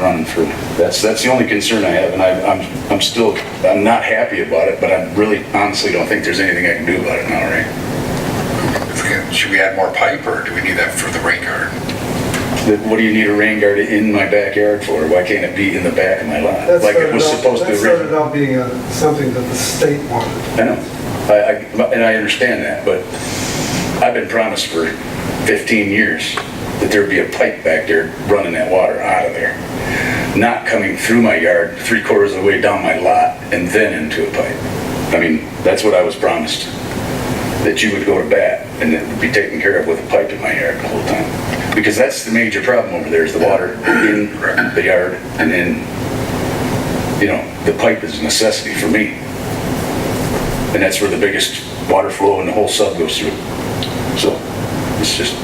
running for, that's, that's the only concern I have, and I, I'm, I'm still, I'm not happy about it, but I really honestly don't think there's anything I can do about it now, right? If we can- Should we add more pipe, or do we need that for the rain garden? That- What do you need a rain garden in my backyard for? Why can't it be in the back of my lot? That Like it started was out- supposed to That started originally. out being a- something that the state wanted. I know, I, I, and I understand that, but I've been promised for 15 years that there'd be a pipe back there running that water out of there, not coming through my yard, three quarters of the way down my lot, and then into a pipe. I mean, that's what I was promised, that you would go to bat and it would be taken care of with a pipe in my yard the whole time. Because that's the major problem over there, is the water in the yard and in, you know, the pipe is a necessity for me. And that's where the biggest water flow in the whole sub goes through. So it's just,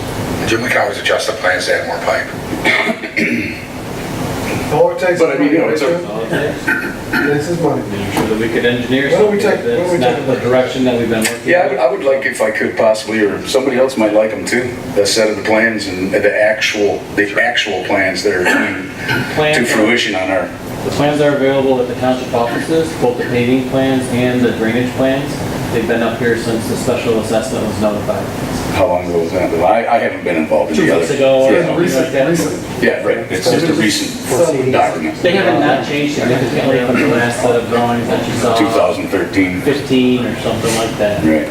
Jim, we can always adjust the plans to add more pipe. All it takes is But I money. mean, you know, it's a- Richard. All it takes, This is money. making sure that we could engineer Why don't we something take- why don't we that's take not a the break? direction that we've been working. yeah, I would, I would like if I could possibly, or somebody else might like them too, the set of the plans and the actual, the actual plans that are coming to Plans are- fruition on our, The plans are available at the township offices, both the paving plans and the drainage plans. They've been up here since the special assessment was notified. how long ago was that? I, I haven't been involved in Two the other. weeks ago or Yeah, something like Recent- recent. that. Yeah, right, it's just a recent document, They haven't not changed significantly from the last set of drawings that you saw, 2013, 15 or something like that. right.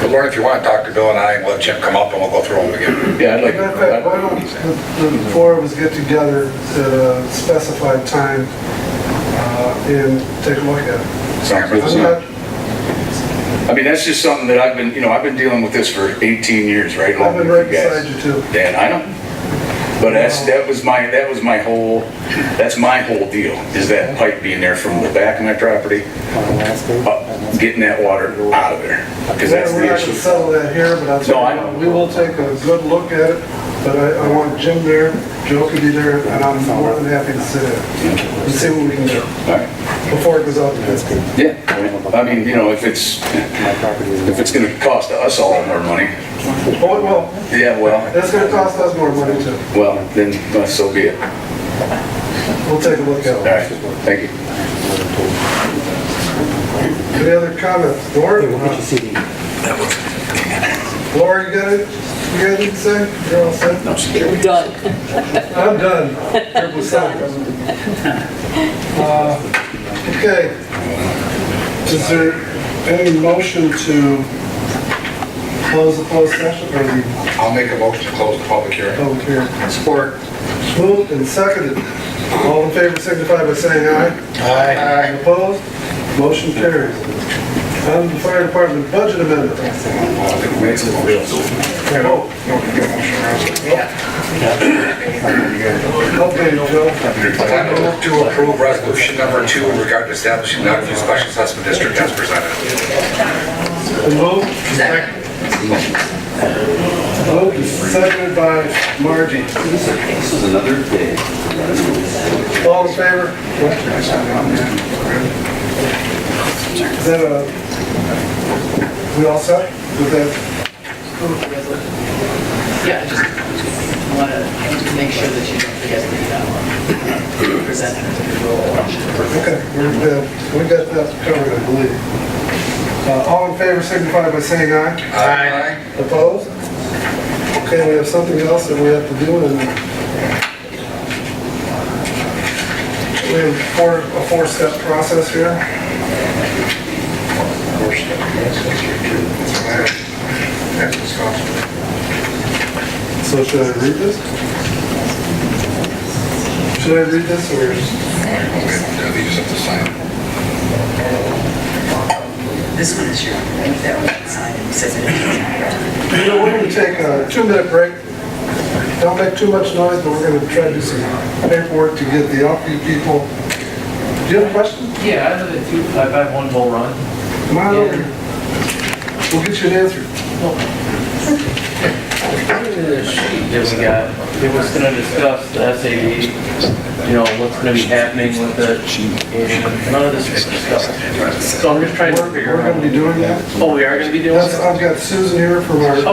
But Lauren, if you want, Dr. Bill and I, and let Jim come up and we'll go through them again. Yeah, I'd like. Matter of fact, why don't the the four of us get together at a specified time uh, and take a look at it? Sounds good. I'm not- I mean, that's just something that I've been, you know, I've been dealing with this for 18 years, right? I've been along right with you guys. beside you too. Dan, I know. But that's, that was my, that was my whole, that's my whole deal, is that pipe being there from the back of my property, up, getting that water out of there, because that's We're the not gonna issue. settle that here, but I'll No, I tell know. you, we will take a good look at it, but I, I want Jim there, Joe can be there, and I'm more than happy to sit in and see what we can do All right. before it goes out to bid. Yeah, I mean, you know, if it's, if it's gonna cost us all more money, Oh, well, yeah, well, that's gonna cost us more money too. well, then uh, so be it. All We'll take a look at it. right, thank you. Any other comments? Laura? Laura, you got it? You got anything to say? You're all set? We're done. I'm done. Triple sec. Uh, Okay. Is there any motion to close the closed session or the I'll make a motion to close the public hearing. public hearing? Support. Moved and seconded. All in favor signify by saying aye. Aye. Opposed? Motion carries. On to the fire department budget amendment. Oh. Okay, Joe. I move to approve resolution number two in regard to establishing Knoxville Special Assessment District as presented. Moved. Moved and seconded by Margie. This is another day. All in favor? Is that a, we all set with that? Yeah, I just want to make sure that you don't forget the, uh, presenter. Okay, we're good. We got that covered, I believe. Uh, All in favor signify by saying aye. Aye. Opposed? Okay, we have something else that we have to do and we have four, a four-step process here. That's disgusting. So should I read this? Should I read this or Okay, they just have to sign it. This one is your, I think that one signed and says it. You know, we're gonna take a two-minute break. Don't make too much noise, but we're gonna try to do some paperwork to get the outfit people. Do you have a question? Yeah, I live at two, I've had one whole run. Come on over. here. We'll get you an answer. That we got, it was gonna discuss the SAD, you know, what's gonna be happening with it, and none of this was discussed. So I'm just trying to We're, figure we're gonna out. be doing that. Oh, we are gonna be doing That's, it? I've got Susan here from our Okay,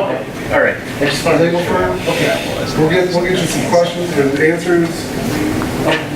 all right. I just wanted to legal firm. Okay. We'll get, we'll get you some questions and answers.